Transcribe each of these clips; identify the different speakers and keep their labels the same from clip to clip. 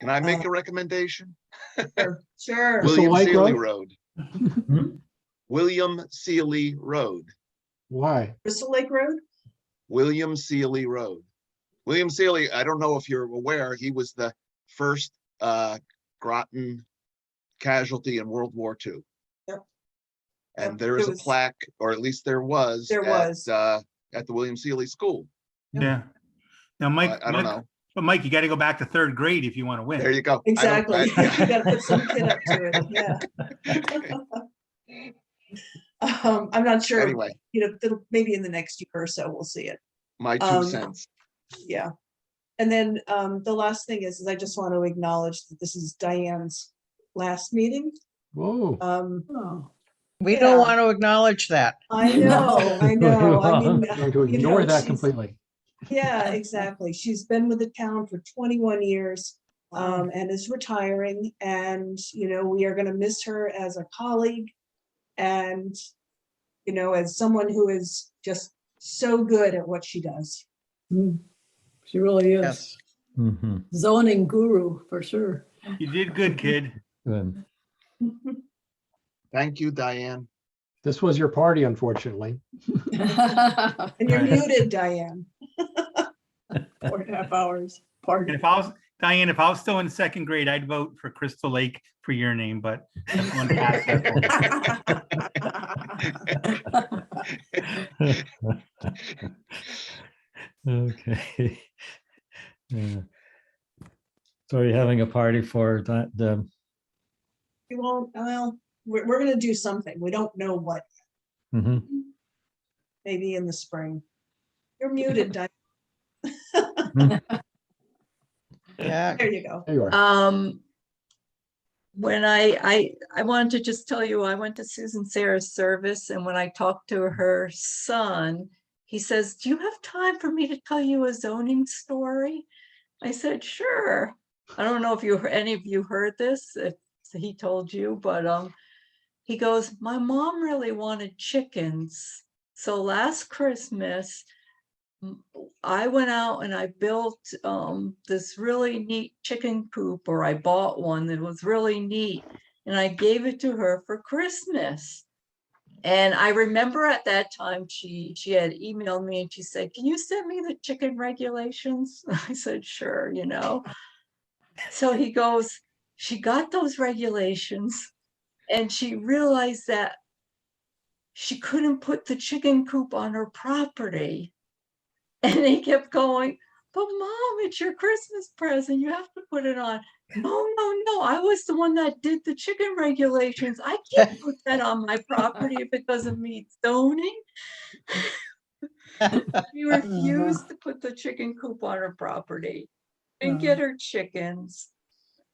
Speaker 1: Can I make a recommendation?
Speaker 2: Uh, Sure.
Speaker 3: Will-
Speaker 1: William
Speaker 3: White
Speaker 1: Sealy
Speaker 3: Road?
Speaker 1: Road.
Speaker 3: Hmm?
Speaker 1: William Sealy Road.
Speaker 3: Why?
Speaker 2: Crystal Lake Road?
Speaker 1: William Sealy Road. William Sealy, I don't know if you're aware, he was the first uh Groton casualty in World War II.
Speaker 2: Yep.
Speaker 1: And there
Speaker 2: Yep, there
Speaker 1: is a
Speaker 2: was-
Speaker 1: plaque, or at least there was.
Speaker 2: There
Speaker 1: at,
Speaker 2: was.
Speaker 1: uh, At the William Sealy School.
Speaker 4: Yeah. Now,
Speaker 1: I
Speaker 4: Mike,
Speaker 1: I don't
Speaker 4: Mike-
Speaker 1: know.
Speaker 4: but Mike, you got to go back to third grade if you want to
Speaker 1: There
Speaker 4: win.
Speaker 1: you go. I don't- I-
Speaker 2: Exactly. You gotta put some kid up to it, yeah. Um, I'm not sure,
Speaker 1: Anyway,
Speaker 2: you know, it'll- maybe in the next year or so, we'll see it,
Speaker 1: my two
Speaker 2: Um,
Speaker 1: cents.
Speaker 2: yeah. And then, um, the last thing is, is I just want to acknowledge that this is Diane's last meeting.
Speaker 3: Whoa.
Speaker 2: Um,
Speaker 5: We
Speaker 2: Yeah.
Speaker 5: don't want to acknowledge that.
Speaker 2: I know, I know, I mean.
Speaker 3: Going
Speaker 2: you
Speaker 3: to
Speaker 2: know,
Speaker 3: ignore that
Speaker 2: she's-
Speaker 3: completely.
Speaker 2: Yeah, exactly. She's been with the town for twenty-one years um, and is retiring. And, you know, we are gonna miss her as a colleague. And, you know, as someone who is just so good at what she does.
Speaker 6: Mm. She really is
Speaker 5: Yes.
Speaker 7: Mhm.
Speaker 6: zoning guru for sure.
Speaker 4: You did good, kid.
Speaker 7: Then
Speaker 1: Thank you, Diane.
Speaker 3: This was your party, unfortunately.
Speaker 6: Four
Speaker 2: And you're
Speaker 4: Right.
Speaker 2: muted, Diane.
Speaker 6: and a half hours,
Speaker 4: And
Speaker 6: pardon.
Speaker 4: if I was, Diane, if I was still in second grade, I'd vote for Crystal Lake for your name, but everyone passed that vote.
Speaker 7: okay. Yeah. So are you having a party for that? The
Speaker 2: We won't, well, we're, we're gonna do something. We don't know what,
Speaker 7: mhm.
Speaker 2: maybe in the spring. You're muted, Diane.
Speaker 5: Yeah.
Speaker 2: There you go.
Speaker 3: There you are.
Speaker 8: Um, when I, I, I wanted to just tell you, I went to Susan Sarah's service and when I talked to her son, he says, do you have time for me to tell you a zoning story? I said, sure. I don't know if you, hear- any of you heard this, if he told you, but, um, he goes, my mom really wanted chickens. So last Christmas, m- I went out and I built um this really neat chicken coop, or I bought one that was really neat. And I gave it to her for Christmas. And I remember at that time, she, she had emailed me and she said, can you send me the chicken regulations? I said, sure, you know. So he goes, she got those regulations and she realized that she couldn't put the chicken coop on her property. And they kept going, but mom, it's your Christmas present. You have to put it on. No, no, no. I was the one that did the chicken regulations. I can't put that on my property if it doesn't meet zoning. She refused to put the chicken coop on her property and get her chickens.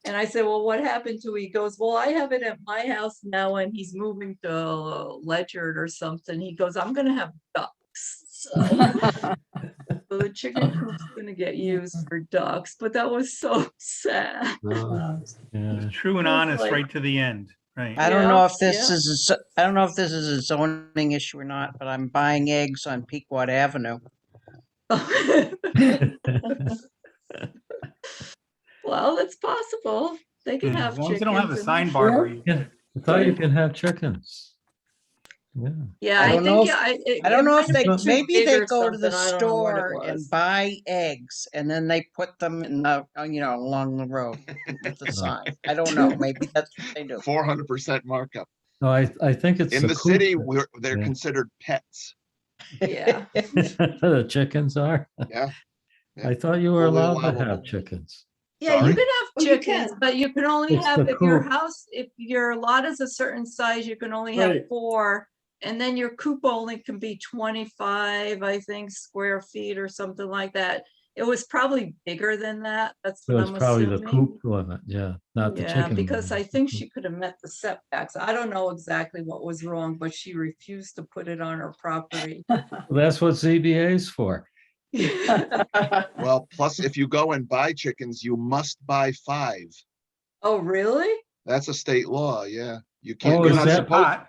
Speaker 8: And I said, well, what happened to, it?" he goes, well, I have it at my house now and he's moving to Ledger or something. He goes, I'm gonna have ducks. So. So the chicken
Speaker 4: Oh.
Speaker 8: coop's gonna get used for ducks, but that was so sad.
Speaker 3: No.
Speaker 7: Yeah.
Speaker 4: True and
Speaker 8: Sounds
Speaker 4: honest
Speaker 8: like-
Speaker 4: right to the end, right?
Speaker 5: I don't
Speaker 8: Yeah,
Speaker 5: know if this
Speaker 8: yeah.
Speaker 5: is, a zo- I don't know if this is a zoning issue or not, but I'm buying eggs on Pequot Avenue.
Speaker 8: Well, it's possible. They can
Speaker 4: Yeah,
Speaker 8: have
Speaker 4: As long as Hmm. they don't have a
Speaker 8: chickens. and-
Speaker 4: sign bar. where
Speaker 6: Yeah.
Speaker 4: you-
Speaker 7: Yeah. I thought you can have chickens. Yeah.
Speaker 8: Yeah,
Speaker 5: I
Speaker 8: I
Speaker 5: don't know
Speaker 8: think,
Speaker 5: if-
Speaker 8: yeah, I. it-
Speaker 5: I
Speaker 8: it
Speaker 5: don't know
Speaker 8: might
Speaker 5: if
Speaker 8: have
Speaker 5: they,
Speaker 8: been too
Speaker 5: maybe
Speaker 8: big
Speaker 5: they
Speaker 8: or
Speaker 5: go to the
Speaker 8: something, I don't know what it
Speaker 5: store and
Speaker 8: was.
Speaker 5: buy eggs and then they put them in the, uh, you know, along the road with the sign. I don't know, maybe that's what they do.
Speaker 1: Four hundred percent markup.
Speaker 7: No, I, I think it's.
Speaker 1: In the
Speaker 7: coop
Speaker 1: city,
Speaker 7: that-
Speaker 1: we're, they're
Speaker 7: yeah.
Speaker 1: considered pets.
Speaker 8: Yeah,
Speaker 7: The chickens are.
Speaker 1: Yeah. Yeah.
Speaker 7: I thought you were
Speaker 1: Fully
Speaker 7: allowed to
Speaker 1: allowable.
Speaker 7: have chickens.
Speaker 8: yeah,
Speaker 1: Sorry.
Speaker 8: you can
Speaker 2: Oh,
Speaker 8: have
Speaker 2: you
Speaker 8: chickens,
Speaker 2: can.
Speaker 8: but you can only
Speaker 7: It's
Speaker 8: have,
Speaker 7: the
Speaker 8: if your
Speaker 7: coop.
Speaker 8: house, if your lot is a certain size, you can only have
Speaker 6: Right.
Speaker 8: four. And then your coop only can be twenty-five, I think, square feet or something like that. It was probably bigger than that, that's
Speaker 7: So
Speaker 8: what
Speaker 7: it's
Speaker 8: I'm
Speaker 7: probably the
Speaker 8: assuming.
Speaker 7: coop limit, yeah, not the
Speaker 8: Yeah,
Speaker 7: chicken.
Speaker 8: because I
Speaker 7: limit.
Speaker 8: think she could have met the setbacks. I don't know exactly what was wrong, but she refused to put it on her property.
Speaker 7: That's what ZBA's for.
Speaker 6: Uh,
Speaker 1: Well, plus if you go and buy chickens, you must buy five.
Speaker 8: Oh, really?
Speaker 1: That's a state law, yeah. You
Speaker 7: Oh,
Speaker 1: can't,
Speaker 7: is
Speaker 1: you're not
Speaker 4: Goes in the
Speaker 7: that-
Speaker 1: supposed,
Speaker 4: pot.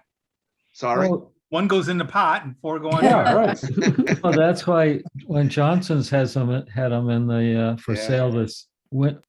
Speaker 1: sorry,
Speaker 7: Oh,
Speaker 4: One goes in the pot and four go on.
Speaker 3: Yeah,
Speaker 4: there.
Speaker 3: right.
Speaker 7: Well, that's why when Johnson's has them, had them in the, uh, for
Speaker 1: Yeah.
Speaker 7: sale this win,